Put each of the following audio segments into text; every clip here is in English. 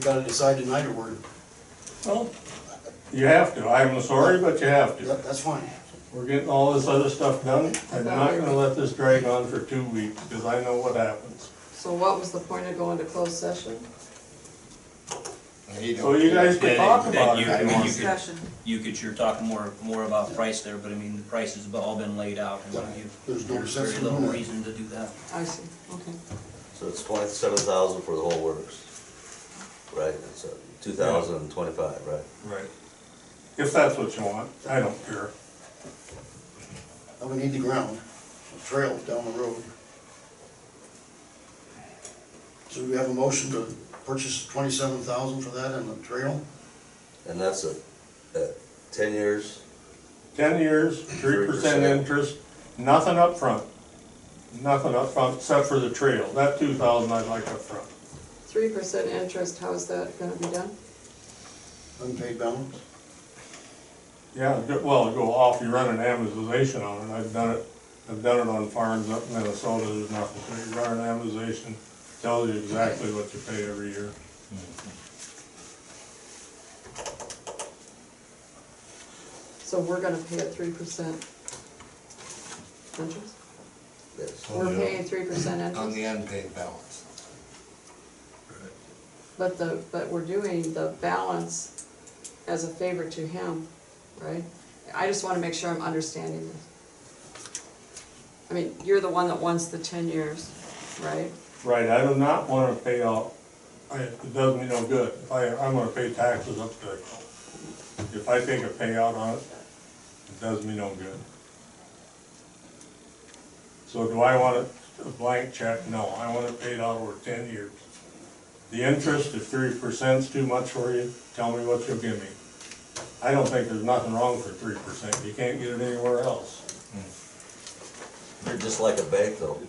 gotta decide tonight or we're, Well, you have to, I'm sorry, but you have to. that- that's fine. We're getting all this other stuff done, I'm not gonna let this drag on for two weeks, because I know what happens. So what was the point of going to closed session? So Oh, you guys can talk about it. Then you- then you- if you want. Discussion. You could, you're talking more, more about price there, but I mean, the price has all been laid out and what have you. There's no sense very in little doing that. reason to do that. I see, okay. So it's twenty-seven thousand for the whole works, right? It's two thousand and twenty-five, right? Right. If that's what you want, I don't care. And we need the ground, a trail down the road. So we have a motion to purchase twenty-seven thousand for that and the trail? And that's a, a ten years, Ten years, three percent 3%. interest, nothing up front, Nothing up front except for the trail, that two thousand I'd like up front. Three percent interest, how is that gonna be done? Unpaid balance? Yeah, go- well, go off, you run an amortization on it, I've done it, I've done it on farms up in Minnesota, there's nothing, so you run an amortization, tells you exactly what you pay every year. So we're gonna pay a three percent interest? yes. Oh, We're yeah. paying three percent on the interest, unpaid balance. but the, but we're doing the balance as a favor to him, right? I just wanna make sure I'm understanding this. I mean, you're the one that wants the ten years, right? Right, I do not wanna pay out, I- it does me no good, if I, I'm gonna pay taxes up to, if I take a payout on it, it does me no good. So do I want it a blank check? No, I want it paid out over ten years. The interest, if three percent's too much for you, tell me what you'll give me. I don't think there's nothing wrong for three percent, you can't get it anywhere else. You're just like a bank though.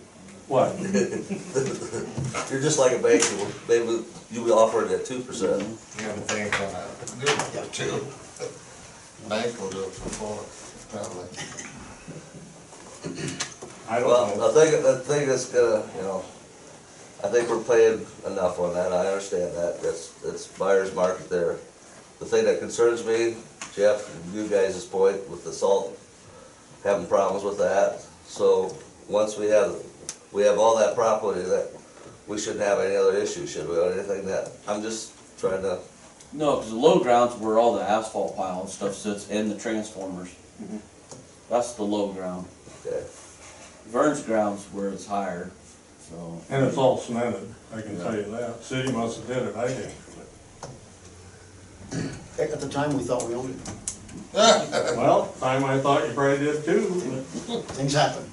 What? You're just like a bank, you will- they would, you would offer it at two percent. You have a bank on that, do it for two. Bank will do it for four, probably. I don't know. Well, I think, I think that's gonna, you know, I think we're paying enough on that, I understand that, that's, that's buyer's market there. The thing that concerns me, Jeff, and you guys' point with the salt, having problems with that. So, once we have, we have all that property, that, we shouldn't have any other issue, should we, or anything that, I'm just trying to, No, because the low ground's where all the asphalt pile and stuff sits and the transformers. That's the low ground. okay. Vern's ground's where it's higher, so. And it's all cemented, I can tell you that. City must have did it, I didn't. Heck, at the time, we thought we owned it. Well, time I thought you probably did too. Things happen.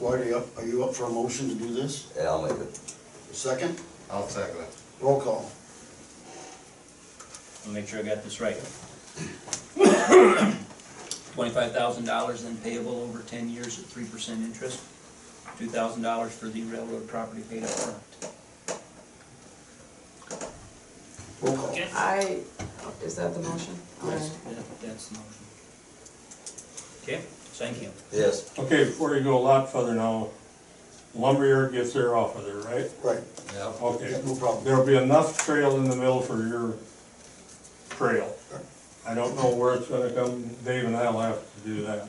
Lloyd, are you up, are you up for a motion to do this? Yeah, I'll make it. Second, I'll second it. roll call. I'll make sure I got this right. Twenty-five thousand dollars then payable over ten years at three percent interest. Two thousand dollars for the railroad property paid up front. Roll call. I, is that the motion? Yes. Alright. That- That's the motion. Okay, thank you. Yes, Okay, before you go a lot further now, lumberyard gets their off of there, right? Right, Yep. yeah, Okay, no problem. there'll be enough trail in the middle for your trail. I don't know where it's gonna come, Dave and I'll have to do that.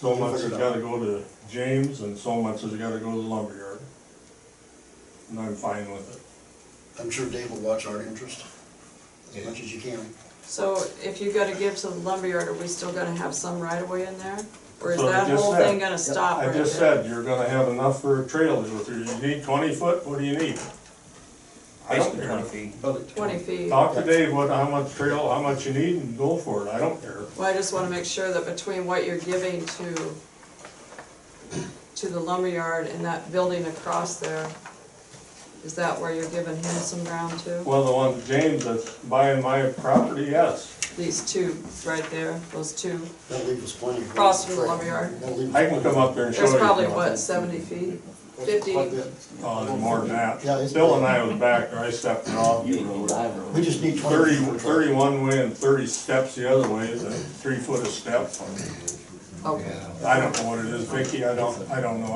So much has gotta go to James and so much has gotta go to the lumberyard. And I'm fine with it. I'm sure Dave will watch our interest as Yeah. much as you can. So if you gotta give to the lumberyard, are we still gonna have some right of way in there? Or is So I that just whole said- thing gonna stop I right just there? said, you're gonna have enough for a trail to go through, you need twenty foot, what do you need? I don't Basically care. twenty feet. Twenty feet. Well, Talk to Dave, what, how much trail, how much you need, and go for it, I don't care. I just wanna make sure that between what you're giving to, to the lumberyard and that building across there, is that where you're giving him some ground to? Well, the one, James that's buying my property, yes, These two right there, those two. That'll leave us plenty. of room. Across from the lumberyard. That'll leave us- I can come up there and show you. There's probably, if you what, want. seventy feet? Quite 50. a bit. Oh, there's more than Yeah, that, it's- Bill and I was back there, I stepped it off, You know, I don't know. We just need thirty, twenty. thirty-one way and thirty steps the other way, is a three foot a step. Okay. Yeah. I don't know what it is, Vicky, I don't, I don't know,